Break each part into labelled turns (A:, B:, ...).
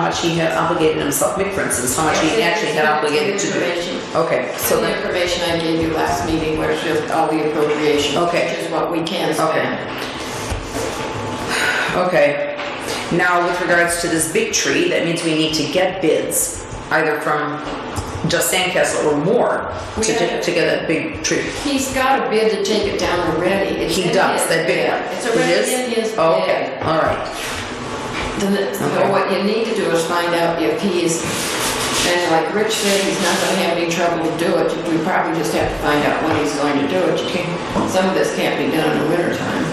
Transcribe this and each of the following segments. A: much he had obligated himself, Mick, for instance, how much he actually had obligated to do.
B: Information.
A: Okay,
B: So
A: so
B: the
A: then,
B: information I gave you last meeting was just all the appropriations.
A: Okay.
B: Which is what we can spend.
A: okay. Now, with regards to this big tree, that means we need to get bids, either from just Sandcastle or more,
B: We
A: to,
B: had-
A: to get that big tree.
B: He's got a bid to take it down already. It's
A: He
B: in
A: does,
B: his
A: that big
B: bid.
A: one.
B: It's
A: It
B: already
A: is?
B: in his bid.
A: Okay, all right,
B: Then, So
A: Okay.
B: what you need to do is find out if he's, and like Rich said, he's not gonna have any trouble to do it. We probably just have to find out when he's going to do it. You can't, some of this can't be done in the wintertime.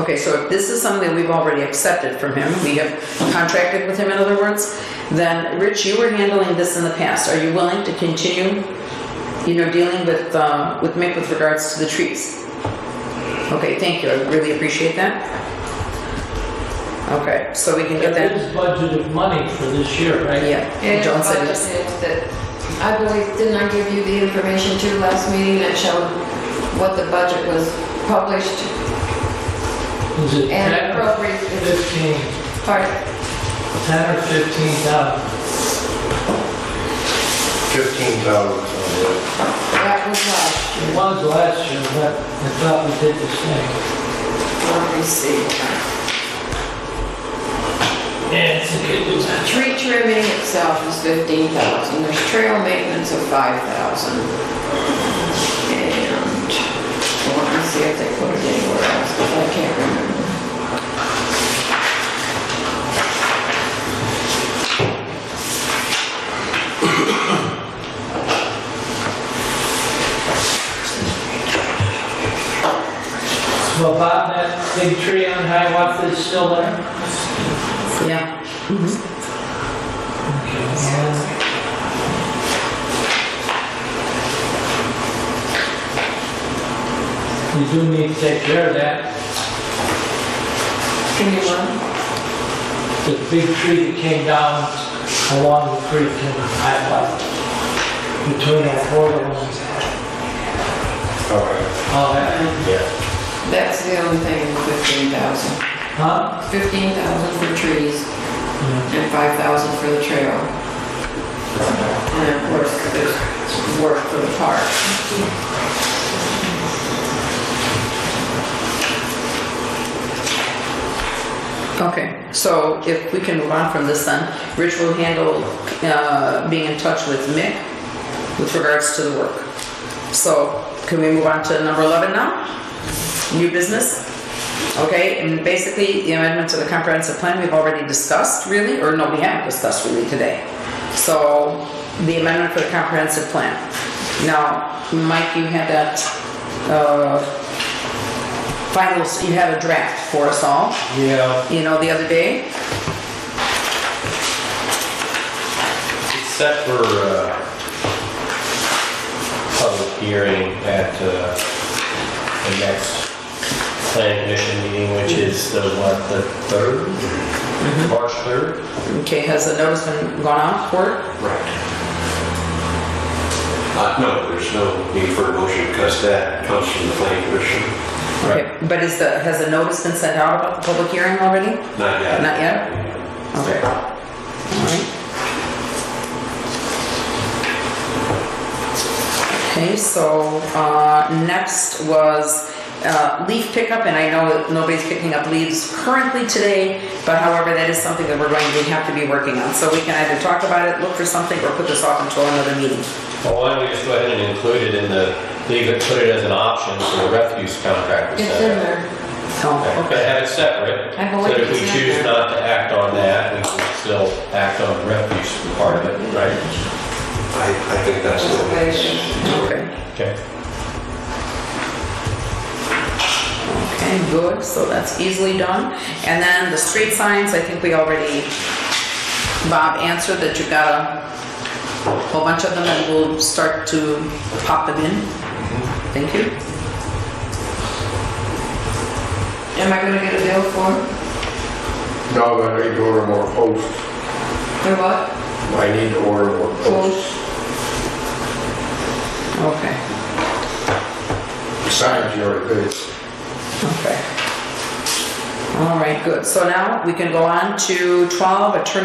A: okay, so if this is something we've already accepted from him, we have contracted with him, in other words, then, Rich, you were handling this in the past, are you willing to continue, you know, dealing with, uh, with Mick with regards to the trees? Okay, thank you, I really appreciate that. Okay, so we can get
C: There
A: that,
C: is budgeted money for this year, right?
A: yeah, John said it's,
B: I believe, didn't I give you the information too last meeting that showed what the budget was published
C: Is it
B: and
C: 10,
B: appropriate?
C: 15,
B: Pardon?
C: 10 or 15,000?
D: 15,000.
B: That was last.
C: It was last year, but I thought we did the same.
B: Let me see.
C: Yeah, it's a good one.
B: Tree trimming itself is fifteen thousand, there's trail maintenance of five thousand. And, I want to see if they put it anywhere else, but I can't remember.
C: Well, Bob, that big tree on Hiawatha is still there?
A: yeah.
C: Yeah. You do need to take care of that,
B: Can you run?
C: the big tree that came down along the creek in Hiawatha, between our border lines.
D: Okay,
C: All that,
D: yeah.
B: That's the only thing, fifteen thousand.
C: huh?
B: Fifteen thousand for trees and five thousand for the trail. And of course, there's work for the park.
A: Okay, so if we can move on from this then, Rich will handle uh, being in touch with Mick with regards to the work. So can we move on to number 11 now? New business? Okay, and basically the amendment to the comprehensive plan we've already discussed really, or no, we haven't discussed really today. So the amendment for the comprehensive plan. Now, Mike, you had that uh, final, you had a draft for us all
E: Yeah,
A: you know, the other day.
E: it's set for uh, public hearing at uh, the next planning commission meeting, which is the, what, the third?
D: Mm-hmm.
E: March 3rd?
A: Okay, has the notice been gone out for it?
D: Right. Uh, no, there's no need for a motion because that comes from the planning commission.
A: Okay, But is the, has the notice been sent out about the public hearing already?
D: Not yet.
A: Not yet? Okay. All right. Okay, so uh, next was uh, leaf pickup, and I know that nobody's picking up leaves currently today, but however, that is something that we're going to have to be working on. So we can either talk about it, look for something, or put this off until another meeting.
E: Well, why don't we just go ahead and include it in the, leave it, put it as an option for the refuse contract.
B: It's in there.
A: Oh,
E: But have it separate,
B: I
E: so
B: believe
E: that if we
B: it's in
E: choose
B: there.
E: not to act on that, we can still act on the refuse part of it, right?
D: I, I think that's the way.
A: okay.
E: Okay.
A: Okay, good, so that's easily done. And then the street signs, I think we already, Bob answered that you got a whole bunch of them and we'll start to pop them in. Thank you.
B: Am I gonna get a bill for it?
D: No, but I need to order more posts.
B: For what?
D: I need to order more posts.
A: Okay,
D: Besides your bids.
A: okay. All right, good. So now we can go on to 12, attorney